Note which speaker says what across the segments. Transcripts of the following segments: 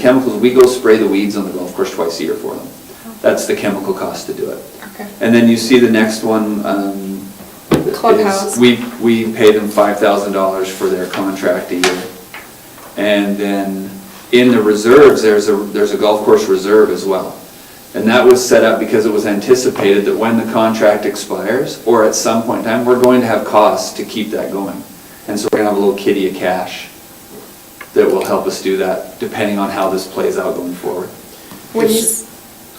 Speaker 1: chemicals, we go spray the weeds on the golf course twice a year for them. That's the chemical cost to do it.
Speaker 2: Okay.
Speaker 1: And then you see the next one, um, is-
Speaker 2: Clubhouse.
Speaker 1: We, we pay them five thousand dollars for their contract a year. And then in the reserves, there's a, there's a golf course reserve as well. And that was set up because it was anticipated that when the contract expires, or at some point in time, we're going to have costs to keep that going. And so we're gonna have a little kitty of cash that will help us do that, depending on how this plays out going forward.
Speaker 2: When you,
Speaker 3: Yes.
Speaker 2: s-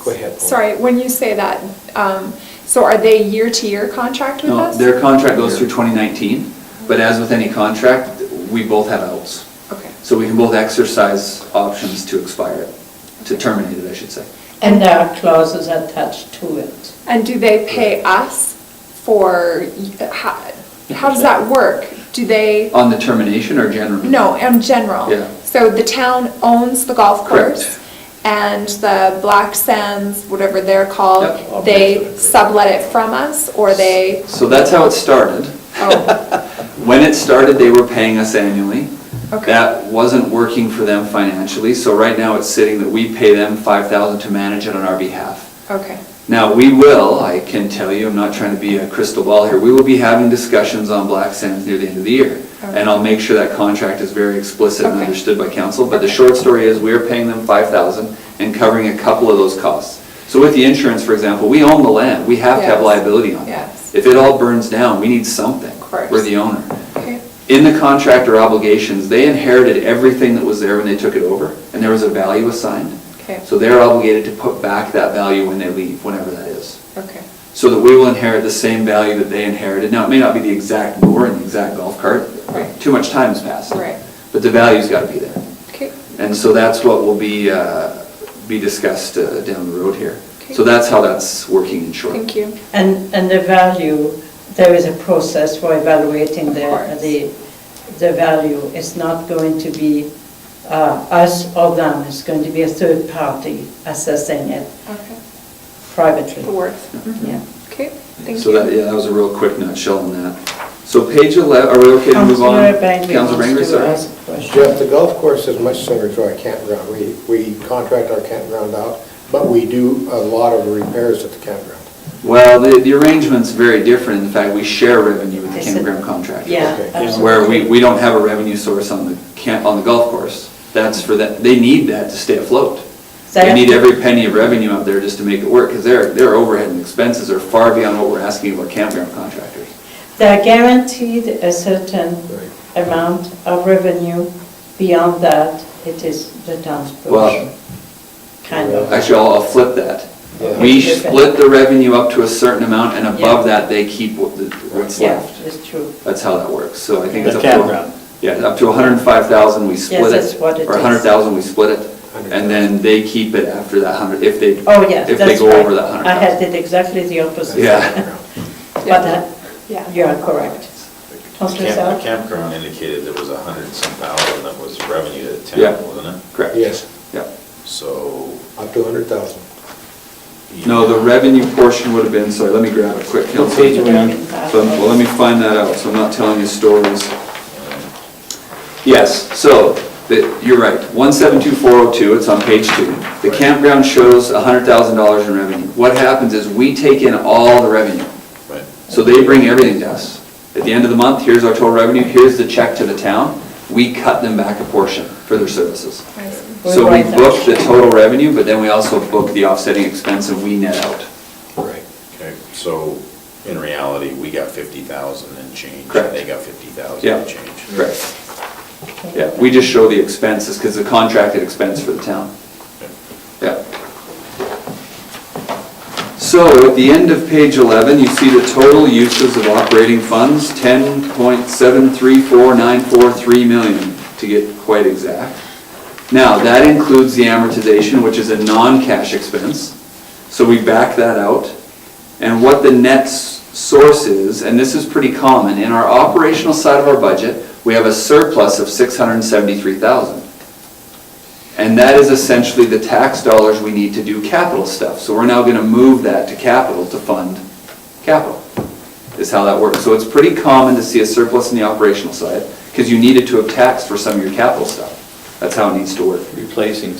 Speaker 3: Go ahead. Paul.
Speaker 2: sorry, when you say that, um, so are they year-to-year contract with
Speaker 1: No,
Speaker 2: us?
Speaker 1: their contract goes through 2019, but as with any contract, we both have outs.
Speaker 2: Okay.
Speaker 1: So we can both exercise options to expire it, to terminate it, I should say.
Speaker 4: And there are clauses attached to it.
Speaker 2: And do they pay us for, y- how, how does that work? Do they,
Speaker 1: On the termination or generally?
Speaker 2: no, in general?
Speaker 1: Yeah.
Speaker 2: So the town owns the golf
Speaker 1: Correct.
Speaker 2: course? And the Black Sands, whatever they're
Speaker 1: Yep.
Speaker 2: called, they sublet it from us, or they,
Speaker 1: So that's how it started.
Speaker 2: oh,
Speaker 1: When it started, they were paying us annually.
Speaker 2: Okay.
Speaker 1: That wasn't working for them financially, so right now it's sitting that we pay them 5,000 to manage it on our behalf.
Speaker 2: okay.
Speaker 1: Now, we will, I can tell you, I'm not trying to be a crystal ball here, we will be having discussions on black sands near the end of the year. And I'll make sure that contract is very explicit and
Speaker 2: Okay.
Speaker 1: understood by council, but the short story is, we're paying them five thousand and covering a couple of those costs. So with the insurance, for example, we own the land, we have to have
Speaker 2: Yes.
Speaker 1: liability on it.
Speaker 2: Yes.
Speaker 1: If it all burns down, we need something.
Speaker 2: course.
Speaker 1: We're the owner.
Speaker 2: Okay.
Speaker 1: In the contractor obligations, they inherited everything that was there when they took it over, and there was a value assigned.
Speaker 2: Okay.
Speaker 1: So they're obligated to put back that value when they leave, whenever that is.
Speaker 2: Okay.
Speaker 1: So that we will inherit the same value that they inherited. Now, it may not be the exact mower and the exact golf cart.
Speaker 2: Right.
Speaker 1: Too much time's passed.
Speaker 2: Right.
Speaker 1: But the value's got to be there.
Speaker 2: Okay.
Speaker 1: And so that's what will be, uh, be discussed uh, down the road here.
Speaker 2: Okay.
Speaker 1: So that's how that's working in short.
Speaker 2: Thank you.
Speaker 4: And, and the value, there is a process for evaluating
Speaker 2: Of
Speaker 4: the,
Speaker 2: course.
Speaker 4: the, the value. It's not going to be uh, us or them, it's going to be a third party assessing it
Speaker 2: Okay.
Speaker 4: privately.
Speaker 2: The worth.
Speaker 4: Yeah.
Speaker 2: Okay, thank
Speaker 1: So that,
Speaker 2: you.
Speaker 1: yeah, that was a real quick nutshell on that. So page 11, are we okay to move on?
Speaker 4: Councillor Bangry
Speaker 1: Councilor
Speaker 4: wants
Speaker 1: Bangry,
Speaker 4: to
Speaker 1: sorry.
Speaker 4: ask a question.
Speaker 3: Jeff, the golf course is much similar to our campground. We, we contract our campground out, but we do a lot of repairs at the campground.
Speaker 1: Well, the, the arrangement's very different. In fact, we share revenue with the
Speaker 4: They said-
Speaker 1: campground contractor.
Speaker 4: Yeah,
Speaker 3: Okay.
Speaker 1: Where we,
Speaker 4: absolutely.
Speaker 1: we don't have a revenue source on the camp, on the golf course. That's for that, they need that to stay afloat. They
Speaker 4: That-
Speaker 1: need every penny of revenue out there just to make it work, because their, their overhead and expenses are far beyond what we're asking of our campground contractors.
Speaker 4: They're guaranteed a certain
Speaker 3: Right.
Speaker 4: amount of revenue. Beyond that, it is the town's
Speaker 1: Well-
Speaker 4: portion. Kind of.
Speaker 1: Actually, I'll, I'll flip that.
Speaker 3: Yeah.
Speaker 1: We split the revenue up to a certain amount, and above
Speaker 4: Yeah.
Speaker 1: that, they keep what the- what's
Speaker 4: Yeah,
Speaker 1: left.
Speaker 4: it's true.
Speaker 1: That's how that works, so I think it's
Speaker 5: The
Speaker 1: up to.
Speaker 5: campground.
Speaker 1: Yeah, up to hundred and five thousand, we split it.
Speaker 4: that's what it
Speaker 1: Or
Speaker 4: is.
Speaker 1: hundred thousand, we split it, and
Speaker 3: 100,000.
Speaker 1: then they keep it after that hundred, if they.
Speaker 4: Oh, yes,
Speaker 1: If they
Speaker 4: that's
Speaker 1: go
Speaker 4: right.
Speaker 1: over that hundred
Speaker 4: I had
Speaker 1: thousand.
Speaker 4: it exactly the opposite.
Speaker 1: Yeah.
Speaker 4: But that,
Speaker 2: Yeah.
Speaker 4: you are correct.
Speaker 5: The
Speaker 4: Councillor
Speaker 5: camp- the
Speaker 4: South?
Speaker 5: campground indicated there was a hundred and some thousand that was revenue to the
Speaker 1: Yeah.
Speaker 5: town, wasn't it?
Speaker 1: Correct.
Speaker 3: Yes,
Speaker 1: Yeah.
Speaker 5: So.
Speaker 3: up to 100,000.
Speaker 1: No, the revenue portion would have been, sorry, let me grab a quick.
Speaker 5: What page are we on?
Speaker 1: So, well, let me find that out, so I'm not telling you stories. Yes, so, the- you're right, 172402, it's on page oh two. The campground shows $100,000 in revenue. What happens is we take in all the revenue.
Speaker 5: Right.
Speaker 1: So they bring everything to us. At the end of the month, here's our total revenue, here's the check to the town. We cut them back a portion for their services.
Speaker 2: I see.
Speaker 4: We
Speaker 1: So we
Speaker 4: write that.
Speaker 1: book the total revenue, but then we also book the offsetting expense and we net out.
Speaker 3: Right.
Speaker 5: Okay, so in reality, we got fifty thousand and change.
Speaker 1: Correct.
Speaker 5: and They got fifty thousand
Speaker 1: Yeah,
Speaker 5: and change.
Speaker 1: correct. Yeah, we just show the expenses, because the contracted expense for the town. Yeah. So at the end of page 11, you see the total uses of operating funds, 10.734943 million, to get quite exact. Now, that includes the amortization, which is a non-cash expense, so we back that out. And what the net s- source is, and this is pretty common, in our operational side of our budget, we have a surplus of 673,000. And that is essentially the tax dollars we need to do capital stuff. So we're now going to move that to capital to fund capital, is how that works. So it's pretty common to see a surplus in the operational side, because you needed to have taxed for some of your capital stuff. That's how it needs to work.
Speaker 6: replacing